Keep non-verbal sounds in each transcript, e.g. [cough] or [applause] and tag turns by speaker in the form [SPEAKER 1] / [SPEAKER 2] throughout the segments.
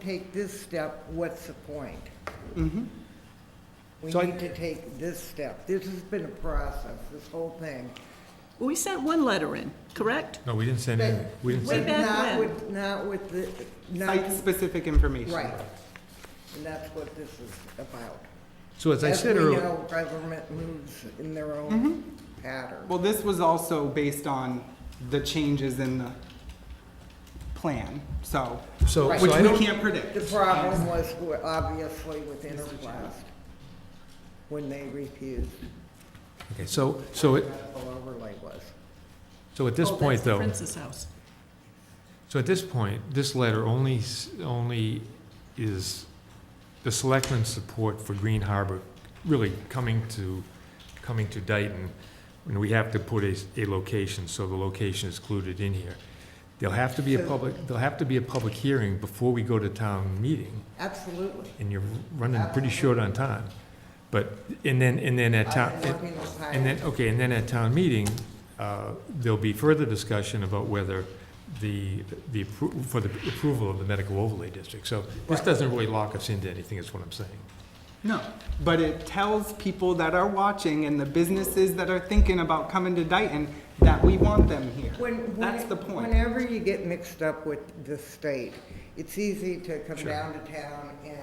[SPEAKER 1] take this step, what's the point? We
[SPEAKER 2] Mm-hmm.
[SPEAKER 3] So I-
[SPEAKER 1] need to take this step. This has been a process, this whole thing.
[SPEAKER 4] We sent one letter in, correct?
[SPEAKER 2] No, we didn't send any, we didn't
[SPEAKER 1] But
[SPEAKER 4] Way
[SPEAKER 2] send,
[SPEAKER 4] back
[SPEAKER 1] not
[SPEAKER 4] when.
[SPEAKER 1] with- Not with the, not,
[SPEAKER 3] Site-specific information.
[SPEAKER 1] right. And that's what this is about.
[SPEAKER 2] so as I
[SPEAKER 1] As we
[SPEAKER 2] said earlier, Mm-hmm.
[SPEAKER 1] know, government moves in their own pattern.
[SPEAKER 3] Well, this was also based on the changes in the plan, so,
[SPEAKER 2] so,
[SPEAKER 1] Right.
[SPEAKER 3] which
[SPEAKER 2] so I
[SPEAKER 3] we
[SPEAKER 2] don't,
[SPEAKER 3] can't predict.
[SPEAKER 1] The problem was w- obviously with Interblast when they refused
[SPEAKER 2] okay, so, so, it-
[SPEAKER 1] medical overlay was.
[SPEAKER 2] so at this
[SPEAKER 4] Oh, that's
[SPEAKER 2] point,
[SPEAKER 4] the
[SPEAKER 2] though.
[SPEAKER 4] Prince's house.
[SPEAKER 2] So at this point, this letter only, s- only is the selectmen's support for Green Harbor really coming to, coming to Dayton, and we have to put a, s- a location, so the location is included in here. There'll have to be a
[SPEAKER 1] So-
[SPEAKER 2] public, there'll have to be a public hearing before we go to town meeting,
[SPEAKER 1] Absolutely.
[SPEAKER 2] and you're running pretty short on time. But, and then, and then at town,
[SPEAKER 1] I've
[SPEAKER 2] at-
[SPEAKER 1] been working on
[SPEAKER 2] and
[SPEAKER 1] pilot.
[SPEAKER 2] then, okay, and then at town meeting, uh, there'll be further discussion about whether the, the, appro- for the approval of the medical overlay district. So this doesn't really lock us into anything, is what I'm saying.
[SPEAKER 3] No, but it tells people that are watching and the businesses that are thinking about coming to Dayton that we want them here.
[SPEAKER 1] When- when-
[SPEAKER 3] That's the point.
[SPEAKER 1] Whenever you get mixed up with the state, it's easy to come down to town and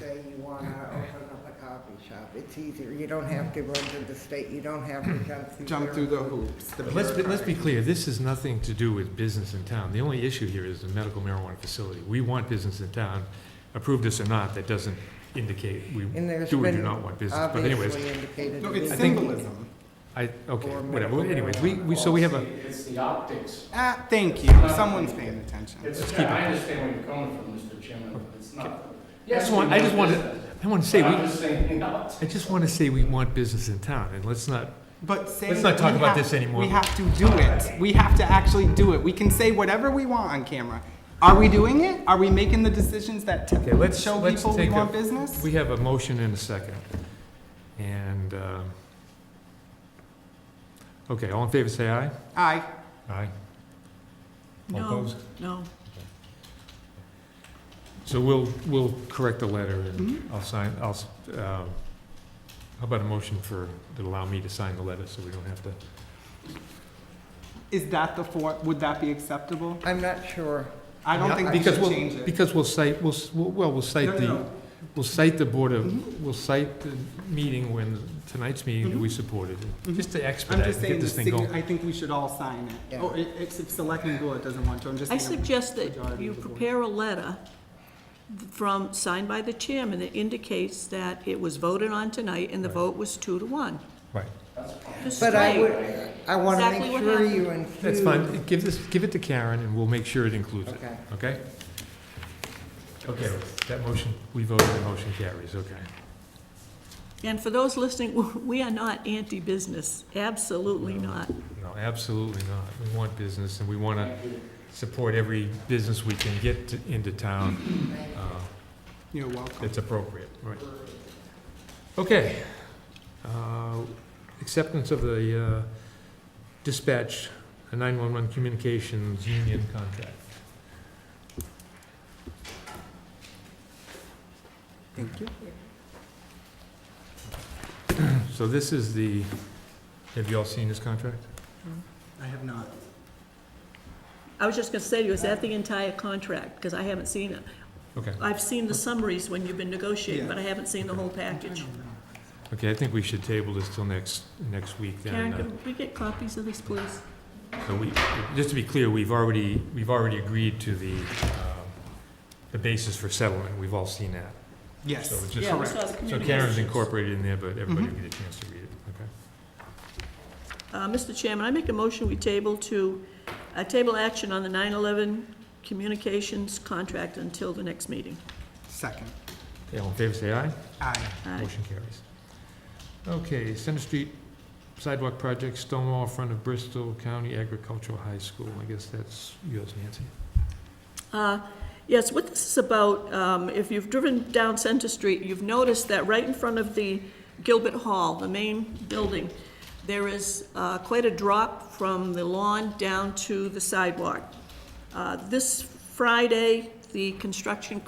[SPEAKER 1] say you want to open up a coffee shop. It's easier. You don't have to run to the state. You don't have to jump through.
[SPEAKER 3] Jump
[SPEAKER 1] their-
[SPEAKER 3] through the hoops. the
[SPEAKER 2] But Let's, be- let's be
[SPEAKER 3] bureaucratic.
[SPEAKER 2] clear, this is nothing to do with business in town. The only issue here is the medical marijuana facility. We want business in town, approve this or not, that doesn't indicate we
[SPEAKER 1] And there's
[SPEAKER 2] do or do
[SPEAKER 1] been
[SPEAKER 2] not want business. But anyways,
[SPEAKER 1] Obviously indicated.
[SPEAKER 3] No,
[SPEAKER 1] to
[SPEAKER 3] it's
[SPEAKER 1] me.
[SPEAKER 2] think-
[SPEAKER 3] symbolism.
[SPEAKER 2] I, okay,
[SPEAKER 1] Or
[SPEAKER 2] whatever,
[SPEAKER 1] medical
[SPEAKER 2] anyways, we, we, so we have a,
[SPEAKER 5] It's the optics.
[SPEAKER 3] Ah, thank you,
[SPEAKER 2] Uh,
[SPEAKER 3] someone's paying attention.
[SPEAKER 5] It's, yeah, I understand where you're coming from, Mr. Chairman, but it's not.
[SPEAKER 2] I just want, I just want to, I want to say,
[SPEAKER 5] But
[SPEAKER 2] we,
[SPEAKER 5] I'm just saying, [laughs] you know, it's-
[SPEAKER 2] I just want to say we want business in town, and let's not
[SPEAKER 3] But say
[SPEAKER 2] Let's not talk
[SPEAKER 3] we
[SPEAKER 2] about
[SPEAKER 3] have-
[SPEAKER 2] this anymore.
[SPEAKER 3] We have to do it. We have to actually do it. We can say whatever we want on camera. Are we doing it? Are we making the decisions that t-
[SPEAKER 2] Okay, let's-
[SPEAKER 3] show
[SPEAKER 2] let's
[SPEAKER 3] people we
[SPEAKER 2] take a-
[SPEAKER 3] want business?
[SPEAKER 2] We have a motion and a second. And, uh, okay, all in favor, say aye.
[SPEAKER 3] Aye.
[SPEAKER 2] Aye. All
[SPEAKER 4] No,
[SPEAKER 2] opposed?
[SPEAKER 4] no.
[SPEAKER 2] So we'll, we'll correct the letter and I'll sign, I'll, s- um, how about a motion for, that allow me to sign the letter so we don't have to?
[SPEAKER 3] Is that the four? Would that be acceptable?
[SPEAKER 1] I'm not sure.
[SPEAKER 3] I don't think we
[SPEAKER 2] Because
[SPEAKER 3] should
[SPEAKER 2] we'll-
[SPEAKER 3] change it.
[SPEAKER 2] Because we'll cite, we'll, s- we'll- well, we'll
[SPEAKER 3] No,
[SPEAKER 2] cite
[SPEAKER 3] no,
[SPEAKER 2] the,
[SPEAKER 3] no.
[SPEAKER 2] we'll cite the Board of, we'll cite the meeting when, tonight's meeting that we supported. Just to
[SPEAKER 3] Mm-hmm. I'm
[SPEAKER 2] expedite
[SPEAKER 3] just
[SPEAKER 2] and
[SPEAKER 3] saying
[SPEAKER 2] get
[SPEAKER 3] the
[SPEAKER 2] this thing
[SPEAKER 3] signa-
[SPEAKER 2] going.
[SPEAKER 3] I think we should all sign it.
[SPEAKER 1] Yeah.
[SPEAKER 3] Or i- except Selectman Bullitt doesn't want to. I'm just.
[SPEAKER 4] I
[SPEAKER 3] saying-
[SPEAKER 4] suggest that
[SPEAKER 3] majority
[SPEAKER 4] you
[SPEAKER 3] of the board.
[SPEAKER 4] prepare a letter from, signed by the chairman that indicates that it was voted on tonight and the vote was two to one.
[SPEAKER 2] Right.
[SPEAKER 4] Just
[SPEAKER 1] But I
[SPEAKER 4] straight.
[SPEAKER 1] would, I want to
[SPEAKER 4] Exactly
[SPEAKER 1] make
[SPEAKER 4] what
[SPEAKER 1] sure
[SPEAKER 4] happened.
[SPEAKER 1] you include.
[SPEAKER 2] That's fine. Give this, give it to Karen and we'll make sure it includes it.
[SPEAKER 1] Okay.
[SPEAKER 2] Okay? Okay, that motion, we voted, the motion carries, okay.
[SPEAKER 4] And for those listening, [laughs] we are not anti-business, absolutely not.
[SPEAKER 2] No, absolutely not. We want business, and we want to support every business we can get to- into town uh,
[SPEAKER 3] You're welcome.
[SPEAKER 2] that's appropriate, right? Okay. Uh, Acceptance of the uh, dispatch, a 911 communications union contract.
[SPEAKER 3] Thank you.
[SPEAKER 2] So this is the, have you all seen this contract?
[SPEAKER 3] I have not.
[SPEAKER 4] I was just gonna say to you, is that the entire contract? Because I haven't seen it.
[SPEAKER 2] Okay.
[SPEAKER 4] I've seen the summaries when you've been negotiating, but I haven't seen the whole package.
[SPEAKER 2] Okay, I think we should table this till next, next week
[SPEAKER 4] Karen,
[SPEAKER 2] then. uh,
[SPEAKER 4] can we get copies of this, please?
[SPEAKER 2] So we, just to be clear, we've already, we've already agreed to the, um, the basis for settlement. We've all seen that.
[SPEAKER 3] Yes.
[SPEAKER 2] So it's just-
[SPEAKER 4] Yeah, we saw the Mm-hmm.
[SPEAKER 2] So
[SPEAKER 4] communications.
[SPEAKER 2] Karen's incorporated in there, but everybody will get a chance to read it, okay?
[SPEAKER 4] Uh, Mr. Chairman, I make a motion we table to, uh, table action on the 9/11 communications contract until the next meeting.
[SPEAKER 3] Second.
[SPEAKER 2] Okay, all in favor, say aye.
[SPEAKER 3] Aye.
[SPEAKER 4] Aye.
[SPEAKER 2] Motion carries. Okay, Center Street Sidewalk Project, stone wall in front of Bristol County Agricultural High School. I guess that's yours, Nancy.
[SPEAKER 4] Uh, Yes, what this is about, um, if you've driven down Center Street, you've noticed that right in front of the Gilbert Hall, the main building, there is uh, quite a drop from the lawn down to the sidewalk. Uh, This Friday, the construction